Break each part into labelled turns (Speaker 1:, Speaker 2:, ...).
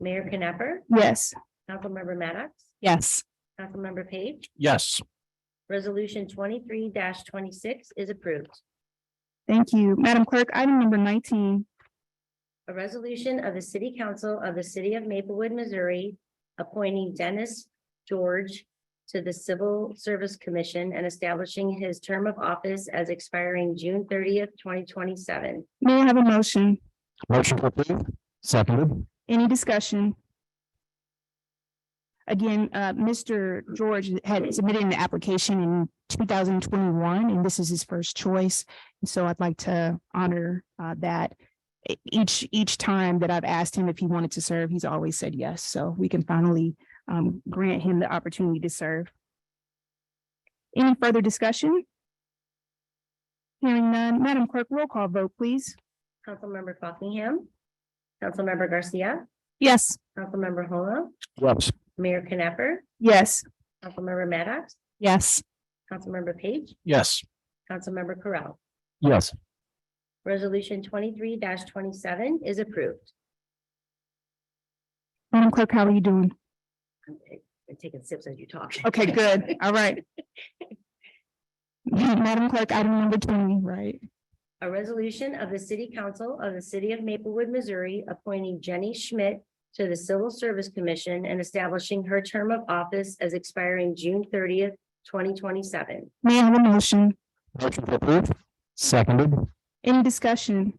Speaker 1: Mayor Knapper,
Speaker 2: Yes.
Speaker 1: Councilmember Maddox,
Speaker 2: Yes.
Speaker 1: Councilmember Page.
Speaker 3: Yes.
Speaker 1: Resolution twenty-three twenty-six is approved.
Speaker 2: Thank you. Madam Clerk, item number nineteen.
Speaker 1: A resolution of the City Council of the City of Maplewood, Missouri, appointing Dennis George to the Civil Service Commission and establishing his term of office as expiring June thirtieth, twenty twenty-seven.
Speaker 2: May I have a motion?
Speaker 3: Motion to approve. Seconded.
Speaker 2: Any discussion? Again, uh, Mr. George had submitted an application in two thousand twenty-one, and this is his first choice. And so I'd like to honor, uh, that. E- Each, each time that I've asked him if he wanted to serve, he's always said yes. So we can finally, um, grant him the opportunity to serve. Any further discussion? Hearing none, Madam Clerk, roll call vote, please.
Speaker 1: Councilmember Buckingham, Councilmember Garcia,
Speaker 2: Yes.
Speaker 1: Councilmember Homa,
Speaker 3: Yes.
Speaker 1: Mayor Knapper,
Speaker 2: Yes.
Speaker 1: Councilmember Maddox,
Speaker 2: Yes.
Speaker 1: Councilmember Page,
Speaker 3: Yes.
Speaker 1: Councilmember Correll.
Speaker 3: Yes.
Speaker 1: Resolution twenty-three twenty-seven is approved.
Speaker 2: Madam Clerk, how are you doing?
Speaker 1: I'm I'm taking sips as you talk.
Speaker 2: Okay, good. All right. Madam Clerk, item number twenty, right?
Speaker 1: A resolution of the City Council of the City of Maplewood, Missouri, appointing Jenny Schmidt to the Civil Service Commission and establishing her term of office as expiring June thirtieth, twenty twenty-seven.
Speaker 2: May I have a motion?
Speaker 3: Motion to approve. Seconded.
Speaker 2: Any discussion?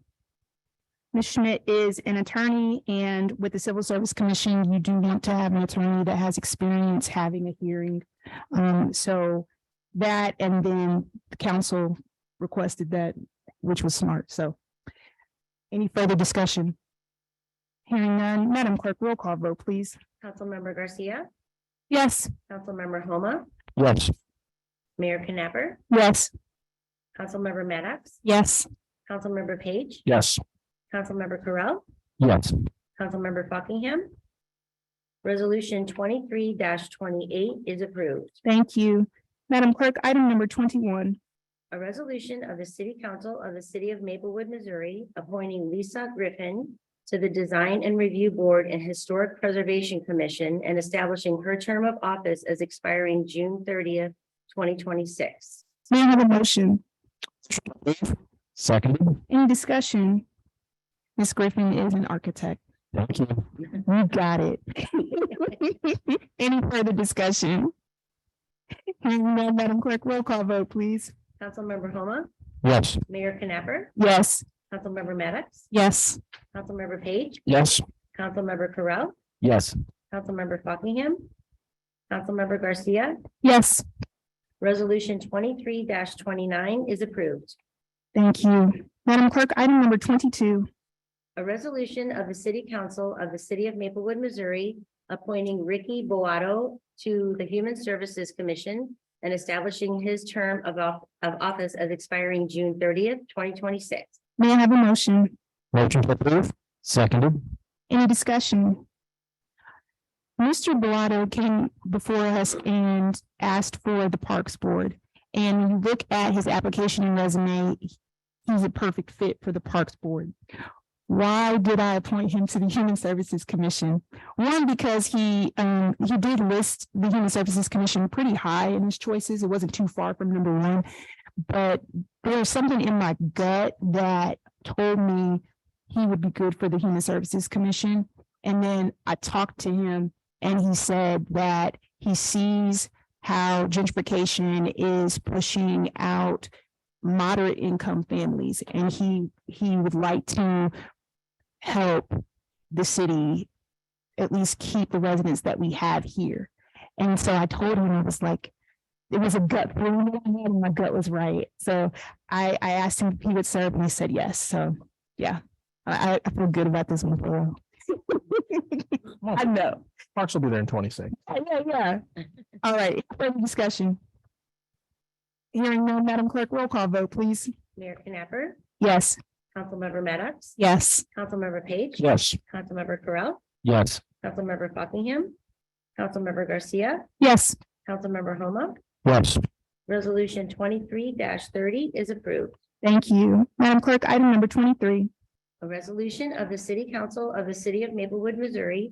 Speaker 2: Ms. Schmidt is an attorney and with the Civil Service Commission, you do want to have an attorney that has experience having a hearing. Um, so that and then the council requested that, which was smart, so. Any further discussion? Hearing none, Madam Clerk, roll call vote, please.
Speaker 1: Councilmember Garcia,
Speaker 2: Yes.
Speaker 1: Councilmember Homa,
Speaker 3: Yes.
Speaker 1: Mayor Knapper,
Speaker 2: Yes.
Speaker 1: Councilmember Maddox,
Speaker 2: Yes.
Speaker 1: Councilmember Page,
Speaker 3: Yes.
Speaker 1: Councilmember Correll,
Speaker 3: Yes.
Speaker 1: Councilmember Buckingham. Resolution twenty-three twenty-eight is approved.
Speaker 2: Thank you. Madam Clerk, item number twenty-one.
Speaker 1: A resolution of the City Council of the City of Maplewood, Missouri, appointing Lisa Griffin to the Design and Review Board and Historic Preservation Commission and establishing her term of office as expiring June thirtieth, twenty twenty-six.
Speaker 2: May I have a motion?
Speaker 3: Seconded.
Speaker 2: Any discussion? Ms. Griffin is an architect.
Speaker 3: Thank you.
Speaker 2: You got it. Any further discussion? Hearing none, Madam Clerk, roll call vote, please.
Speaker 1: Councilmember Homa,
Speaker 3: Yes.
Speaker 1: Mayor Knapper,
Speaker 2: Yes.
Speaker 1: Councilmember Maddox,
Speaker 2: Yes.
Speaker 1: Councilmember Page,
Speaker 3: Yes.
Speaker 1: Councilmember Correll,
Speaker 3: Yes.
Speaker 1: Councilmember Buckingham, Councilmember Garcia.
Speaker 2: Yes.
Speaker 1: Resolution twenty-three twenty-nine is approved.
Speaker 2: Thank you. Madam Clerk, item number twenty-two.
Speaker 1: A resolution of the City Council of the City of Maplewood, Missouri, appointing Ricky Boato to the Human Services Commission and establishing his term of off- of office as expiring June thirtieth, twenty twenty-six.
Speaker 2: May I have a motion?
Speaker 3: Motion to approve. Seconded.
Speaker 2: Any discussion? Mr. Bellato came before us and asked for the Parks Board. And when you look at his application and resume, he's a perfect fit for the Parks Board. Why did I appoint him to the Human Services Commission? One, because he, um, he did list the Human Services Commission pretty high in his choices. It wasn't too far from number one. But there's something in my gut that told me he would be good for the Human Services Commission. And then I talked to him and he said that he sees how gentrification is pushing out moderate income families and he, he would like to help the city at least keep the residents that we have here. And so I told him, I was like, it was a gut feeling that I had and my gut was right. So I, I asked him if he would serve and he said yes. So I, I- I feel good about this one for real. I know.
Speaker 3: Parks will be there in twenty-six.
Speaker 2: Yeah, Yeah, yeah. All right, further discussion. Hearing none, Madam Clerk, roll call vote, please.
Speaker 1: Mayor Knapper,
Speaker 2: Yes.
Speaker 1: Councilmember Maddox,
Speaker 2: Yes.
Speaker 1: Councilmember Page,
Speaker 3: Yes.
Speaker 1: Councilmember Correll,
Speaker 3: Yes.
Speaker 1: Councilmember Buckingham, Councilmember Garcia,
Speaker 2: Yes.
Speaker 1: Councilmember Homa.
Speaker 3: Yes.
Speaker 1: Resolution twenty-three thirty is approved.
Speaker 2: Thank you. Madam Clerk, item number twenty-three.
Speaker 1: A resolution of the City Council of the City of Maplewood, Missouri,